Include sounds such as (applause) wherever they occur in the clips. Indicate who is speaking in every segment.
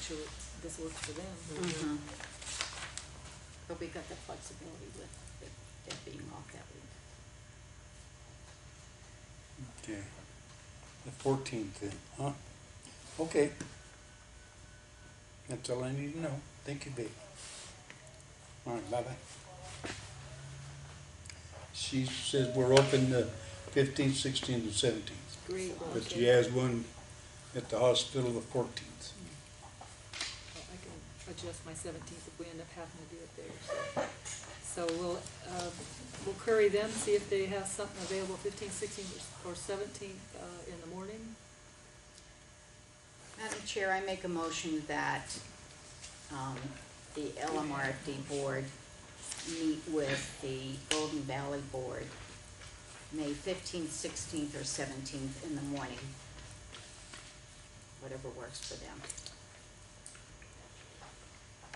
Speaker 1: sure this works for them.
Speaker 2: Mhm. But we got the flexibility with it it being off that week.
Speaker 3: Okay, the fourteenth then, huh? Okay. That's all I need to know. Thank you, babe. All right, bye-bye. She says we're open the fifteenth, sixteenth, and seventeenth,
Speaker 1: Great.
Speaker 3: but
Speaker 1: okay.
Speaker 3: she has one at the hospital the fourteenth.
Speaker 1: Well, Oh, I can adjust my seventeenth if we end up having to do it there, so. So we'll, uh, we'll query them, see if they have something available fifteenth, sixteenth, or seventeenth, uh, in the morning.
Speaker 2: Madam Chair, I make a motion that um, the LMRFD board meet with the Golden Valley Board, May 15th, 16th, or 17th in the morning, whatever works for them.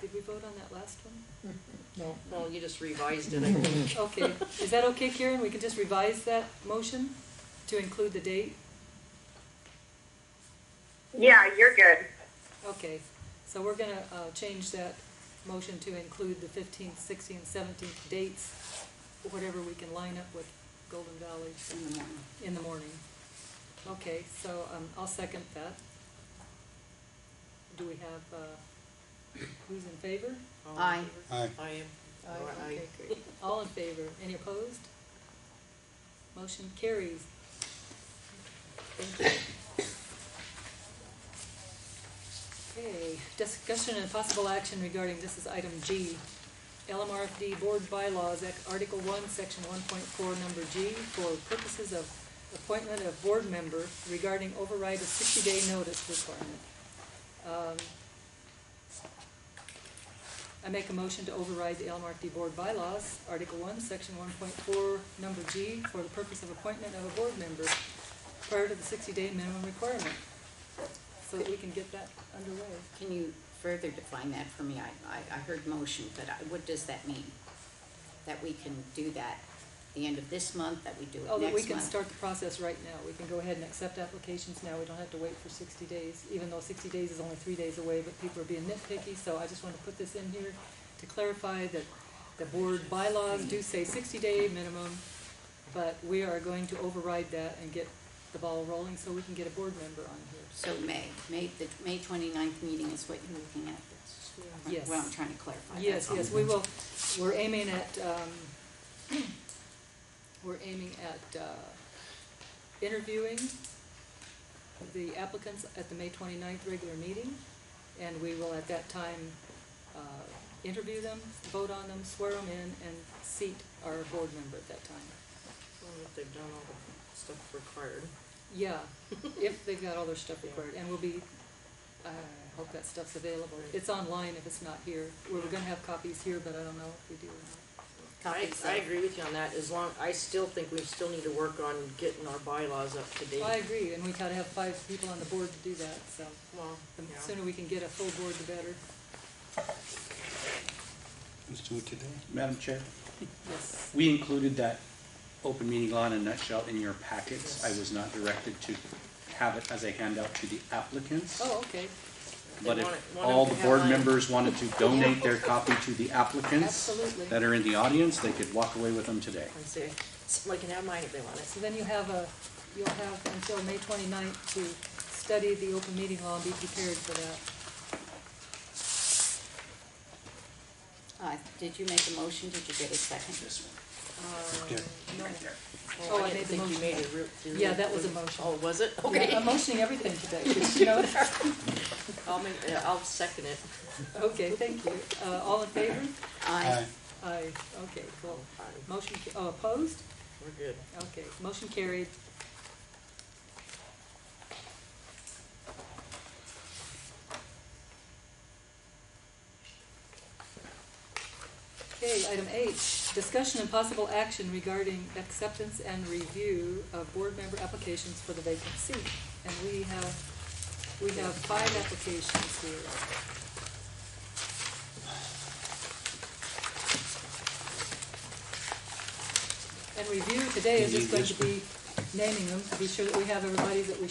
Speaker 1: Did we vote on that last one?
Speaker 4: No.
Speaker 5: Well, you just revised it, I think.
Speaker 1: Okay, is that okay, Karen? We can just revise that motion to include the date?
Speaker 6: Yeah, you're good.
Speaker 1: Okay, so we're gonna, uh, change that motion to include the fifteenth, sixteenth, seventeenth dates, whatever we can line up with Golden Valley
Speaker 2: In the morning.
Speaker 1: in the morning. Okay, so, um, I'll second that. Do we have, uh, who's in favor?
Speaker 5: All in
Speaker 2: Aye.
Speaker 5: favor?
Speaker 3: Aye.
Speaker 5: I am. Or aye.
Speaker 1: Okay, great. All in favor, any opposed? Motion carries. Thank you. Okay, discussion and possible action regarding, this is item G, LMRFD Board Bylaws, Ec- Article One, Section one point four, number G, for purposes of appointment of board member regarding override of sixty-day notice requirement. Um, I make a motion to override the LMRFD Board bylaws, Article one, Section one point four, number G, for the purpose of appointment of a board member prior to the sixty-day minimum requirement, so that we can get that underway.
Speaker 2: Can you further define that for me? I, I, I heard motion, but I, what does that mean? That we can do that the end of this month, that we do it next
Speaker 1: Oh,
Speaker 2: month?
Speaker 1: that we can start the process right now, we can go ahead and accept applications now, we don't have to wait for sixty days, even though sixty days is only three days away, but people are being nitpicky, so I just wanna put this in here to clarify that the board bylaws do say sixty day minimum, but we are going to override that and get the ball rolling so we can get a board member on here.
Speaker 2: So May, May, the May twenty-ninth meeting is what you're looking at, that's
Speaker 1: Yes.
Speaker 2: what I'm trying to clarify. that's
Speaker 1: Yes,
Speaker 2: all.
Speaker 1: yes, we will, we're aiming at, um, (clears throat) we're aiming at, uh, interviewing the applicants at the May twenty-ninth regular meeting, and we will at that time, uh, interview them, vote on them, swear them in, and seat our board member at that time.
Speaker 5: Well, if they've done all the stuff required.
Speaker 1: Yeah, if they've got all their stuff recorded, and we'll be, I hope that stuff's available. It's online if it's not here. We We're gonna have copies here, but I don't know if we do or not.
Speaker 5: I,
Speaker 2: Copies
Speaker 5: I
Speaker 2: of-
Speaker 5: agree with you on that, as long, I still think we still need to work on getting our bylaws up to date.
Speaker 1: Well, I agree, and we gotta have five people on the board to do that, so
Speaker 5: Well,
Speaker 1: the
Speaker 5: yeah.
Speaker 1: sooner we can get a full board, the better.
Speaker 3: Let's do it today.
Speaker 7: Madam Chair,
Speaker 1: Yes.
Speaker 7: we included that open meeting law in a nutshell in your packets. I was not directed to have it as a handout to the applicants.
Speaker 1: Oh, okay,
Speaker 7: But
Speaker 5: They want
Speaker 7: if
Speaker 5: it- want
Speaker 7: all
Speaker 5: them
Speaker 7: the
Speaker 5: to
Speaker 7: board
Speaker 5: have mine.
Speaker 7: members wanted to donate their copy to the applicants
Speaker 1: Absolutely.
Speaker 7: that are in the audience, they could walk away with them today.
Speaker 5: I see, somebody can have mine if they want it.
Speaker 1: so then you have a, you'll have until May twenty-ninth to study the open meeting law and be prepared for that.
Speaker 2: Uh, did you make a motion, did you get a second?
Speaker 7: This one,
Speaker 3: Yeah.
Speaker 1: No.
Speaker 7: right there.
Speaker 1: Oh, I
Speaker 5: didn't
Speaker 1: made the
Speaker 5: think you
Speaker 1: motion.
Speaker 5: made a real- did
Speaker 1: Yeah,
Speaker 5: you-
Speaker 1: that was a motion.
Speaker 5: Oh, was it?
Speaker 1: Yeah,
Speaker 5: Okay.
Speaker 1: I'm motioning everything today, you know?
Speaker 5: I'll make, uh, I'll second it.
Speaker 1: (laughs) Okay, thank you. Uh, all in favor?
Speaker 2: Aye.
Speaker 1: Aye, okay, cool.
Speaker 5: Aye.
Speaker 1: Motion, ca- oh, opposed?
Speaker 5: Oh, We're good.
Speaker 1: Okay, motion carried. Okay, item H, discussion and possible action regarding acceptance and review of board member applications for the vacant seat. And we have, we have five applications here. And review today is just going to be naming them, to be sure that we have everybody that we